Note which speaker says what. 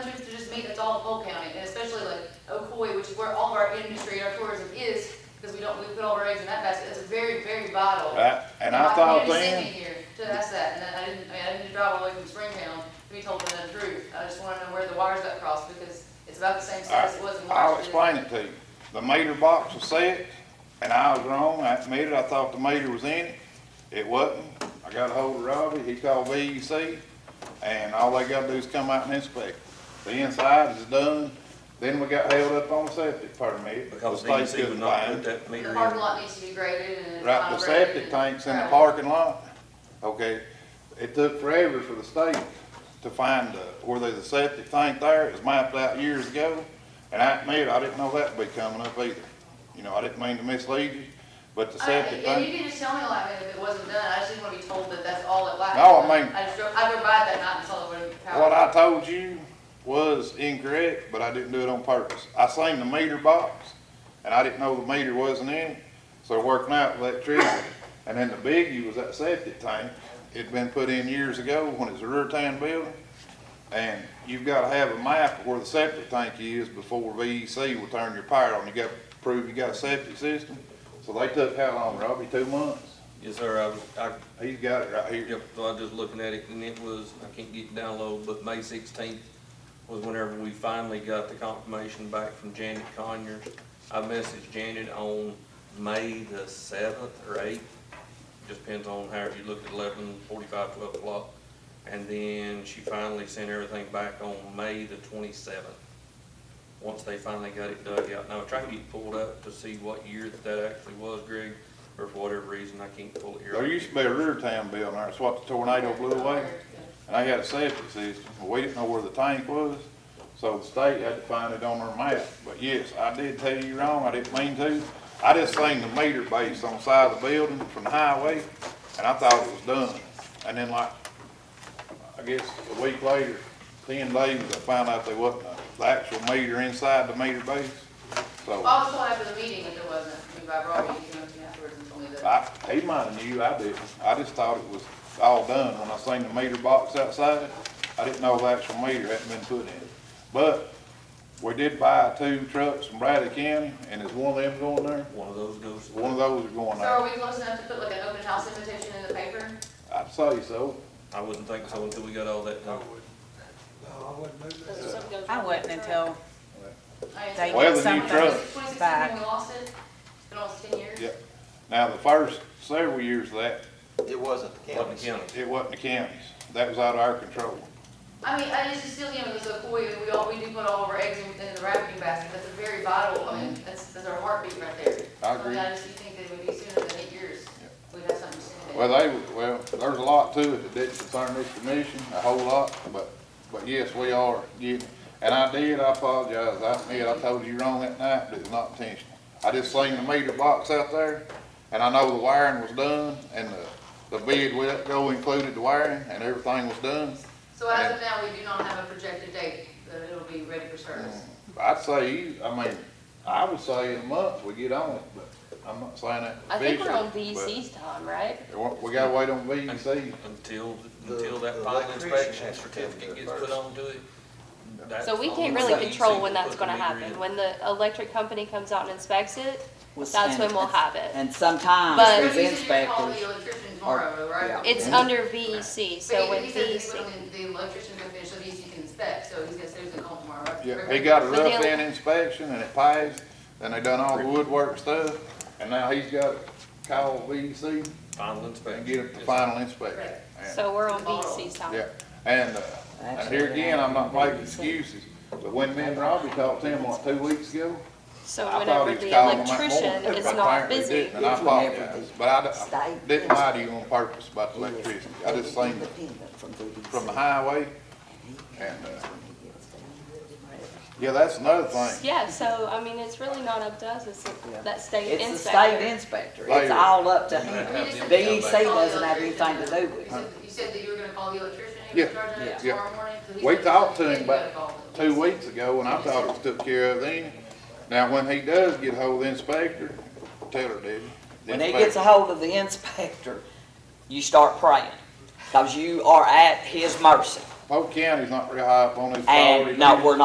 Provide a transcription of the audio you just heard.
Speaker 1: all of Cole County, and especially like Ocoy, which is where all of our industry, our tourism is, because we don't, we put all our eggs in that basket, it's very, very vital.
Speaker 2: I- Uh, And I thought
Speaker 1: My community
Speaker 2: then,
Speaker 1: sent me here to ask that, and I didn't, I mean, I didn't drive all the way from Springtown to be told the truth. I just wanna know where the wires got crossed, because it's about the same size it was in
Speaker 2: I'll
Speaker 1: Washington.
Speaker 2: explain it to you. The meter box was set, and I was wrong, I admitted, I thought the meter was in it. It wasn't. I got ahold of Robbie, he called VEC, and all they gotta do is come out and inspect. The inside is done, then we got held up on septic permit.
Speaker 3: Because
Speaker 2: The state
Speaker 3: DEC
Speaker 2: couldn't
Speaker 3: would not
Speaker 2: find
Speaker 3: put
Speaker 2: it.
Speaker 3: that meter
Speaker 1: The
Speaker 3: in.
Speaker 1: parking lot needs to be graded and. it's
Speaker 2: Right, the
Speaker 1: not graded
Speaker 2: septic
Speaker 1: and-
Speaker 2: tanks in the
Speaker 1: Right.
Speaker 2: parking lot, okay, it took forever for the state to find, uh, where there's a septic tank there, it was mapped out years ago, and I admit, I didn't know that would be coming up either. You know, I didn't mean to mislead you, but the
Speaker 1: I-
Speaker 2: septic
Speaker 1: And you
Speaker 2: tank,
Speaker 1: can just tell me like if it wasn't done, I just didn't wanna be told that that's all it lacked.
Speaker 2: No, I mean-
Speaker 1: I just drove, I drove by that night and saw the wood power.
Speaker 2: what I told you was incorrect, but I didn't do it on purpose. I seen the meter box, and I didn't know the meter wasn't in it, so working out with electricity. And then the biggie was that septic tank, it'd been put in years ago when it was a rear town building. And you've gotta have a map of where the septic tank is before VEC will turn your power on, you gotta prove you got a septic system. So they took how long, Robbie, two months?
Speaker 3: Yes, sir, I, was- I,
Speaker 2: He's got it right here.
Speaker 3: yep, so I was just looking at it and it was, I can't get the download, but May sixteenth was whenever we finally got the confirmation back from Janet Conyers. I messaged Janet on May the seventh or eighth, just depends on how you look at 11, 45, 12 o'clock. And then she finally sent everything back on May the twenty-seventh. Once they finally got it dug out. Now, I tried to get pulled up to see what year that that actually was, Greg, or for whatever reason, I can't pull it here.
Speaker 2: There used to be a rear town building there, that's what the tornado blew away. And they had a septic system, but we didn't know where the tank was, so the state had to find it on their map. But yes, I did tell you wrong, I didn't mean to. I just seen the meter base on the side of the building from the highway, and I thought it was done. And then like, I guess a week later, ten days, I found out they wasn't, a- the actual meter inside the meter base. So,
Speaker 1: I was told after the meeting that there wasn't, I mean, by Robbie, he came up to me afterwards and told me that.
Speaker 2: I, he might have knew, I didn't. I just thought it was all done when I seen the meter box outside. I didn't know the actual meter hadn't been put in. But we did buy two trucks from Bradley County, and is one of them going there?
Speaker 3: One of those goes.
Speaker 2: One of those are going
Speaker 1: So
Speaker 2: there.
Speaker 1: are we close enough to put like an open house invitation in the paper?
Speaker 2: I'd say so.
Speaker 3: I wouldn't think so until we got all that done.
Speaker 4: No, I wouldn't move that.
Speaker 5: I wouldn't until,
Speaker 1: I mean,
Speaker 5: They
Speaker 1: it's-
Speaker 5: Well,
Speaker 2: the new truck.
Speaker 1: Twenty sixteen,
Speaker 5: Back.
Speaker 1: when we lost it, it's been almost ten years.
Speaker 2: Yep. Now, the first several years of that,
Speaker 6: It wasn't the
Speaker 3: Let
Speaker 6: county's.
Speaker 3: the county.
Speaker 2: it wasn't the county's. That was out of our control.
Speaker 1: I mean, I just, it's still, you know, it's a koi, and we all, we do put all of our eggs in, in the wrapping basket, that's a very vital, I mean, that's, that's our heartbeat right there.
Speaker 2: Mm-hmm. I
Speaker 1: So,
Speaker 2: agree.
Speaker 1: I just, you think that it would be sooner than eight years, we'd have something sooner.
Speaker 2: Well, they, well, there's a lot to it that didn't concern this commission, a whole lot, but, but yes, we are getting, and I did, I apologize, I admit, I told you wrong that night, but it was not intentional. I just seen the meter box out there, and I know the wiring was done, and the, the bid we let go included the wiring, and everything was done.
Speaker 1: So as of now, we do not have a projected date, that it'll be ready for service.
Speaker 2: I'd say, you- I mean, I would say in a month we get on it, but I'm not saying that.
Speaker 7: I think we're on
Speaker 2: officially, but
Speaker 7: VEC's time, right?
Speaker 2: We we gotta wait on VEC.
Speaker 3: Until,
Speaker 6: The-
Speaker 3: until that
Speaker 6: the
Speaker 3: final
Speaker 6: electrician
Speaker 3: inspection
Speaker 6: has to come
Speaker 3: certificate
Speaker 6: to it
Speaker 3: gets put
Speaker 6: first.
Speaker 3: onto it. that's
Speaker 7: So we
Speaker 3: on
Speaker 7: can't
Speaker 3: the
Speaker 7: really
Speaker 3: state
Speaker 7: control
Speaker 3: seal
Speaker 7: when
Speaker 3: to
Speaker 7: that's
Speaker 3: put
Speaker 7: gonna
Speaker 3: the meter
Speaker 7: happen.
Speaker 3: in.
Speaker 7: When the electric company comes out and inspects it,
Speaker 8: Well,
Speaker 7: that's when
Speaker 8: and-
Speaker 7: we'll have it.
Speaker 8: And sometimes
Speaker 7: But-
Speaker 8: there's
Speaker 1: You said you're calling
Speaker 8: inspectors,
Speaker 1: the electrician tomorrow, right?
Speaker 7: It's under VEC, so
Speaker 1: But
Speaker 7: when E
Speaker 1: he, he said
Speaker 7: VEC.
Speaker 1: he went, the electrician gonna finish, so he can inspect, so he's gonna say he's gonna call tomorrow, right?
Speaker 2: Yeah, he got a
Speaker 7: But
Speaker 2: rough
Speaker 7: then-
Speaker 2: end inspection and it passed, and they done all the woodwork stuff, and now he's got to call VEC
Speaker 3: Final
Speaker 2: and
Speaker 3: inspection.
Speaker 2: get it the
Speaker 3: Yes.
Speaker 2: final inspection. And-
Speaker 7: So we're on VEC's time.
Speaker 2: Yeah, and, uh, and here again, I'm not making excuses, but when me and Robbie talked to him, what, two weeks ago?
Speaker 7: So
Speaker 2: I thought
Speaker 7: whenever
Speaker 2: he was
Speaker 7: the
Speaker 2: calling him that
Speaker 7: electrician
Speaker 2: morning,
Speaker 7: is
Speaker 2: but
Speaker 7: not
Speaker 2: apparently
Speaker 7: busy.
Speaker 2: didn't, And I
Speaker 8: Here's whenever
Speaker 2: apologized,
Speaker 8: the
Speaker 2: but I d- I
Speaker 8: state
Speaker 2: didn't lie to you on purpose about the
Speaker 8: He is
Speaker 2: electricity, I just seen it
Speaker 8: independent from VDC.
Speaker 2: from the highway, and, uh,
Speaker 8: When he gets down.
Speaker 2: yeah, that's another thing.
Speaker 7: Yeah, so I mean, it's really not up to us, it's
Speaker 8: Yeah.
Speaker 7: that state
Speaker 8: It's the state
Speaker 7: inspector.
Speaker 8: inspector,
Speaker 2: Later.
Speaker 8: it's all up to
Speaker 3: You're
Speaker 8: him.
Speaker 3: gonna have them
Speaker 8: DEC
Speaker 3: come back.
Speaker 8: doesn't have anything to do with it.
Speaker 1: You said- You said that you were gonna call the electrician, he
Speaker 2: Yeah,
Speaker 1: was charging it
Speaker 2: yeah.
Speaker 1: tomorrow morning? so he
Speaker 2: We
Speaker 1: said-
Speaker 2: talked to
Speaker 1: he
Speaker 2: him
Speaker 1: said you gotta
Speaker 2: about
Speaker 1: call the
Speaker 2: two
Speaker 1: police.
Speaker 2: weeks ago, and I thought it was took care of then. Now, when he does get hold of the inspector, tell her, did
Speaker 8: When he gets a hold of the inspector, you start praying, because you are at his mercy.
Speaker 2: Polk County's not real high up on his priority
Speaker 8: And, no,
Speaker 2: list.
Speaker 8: we're not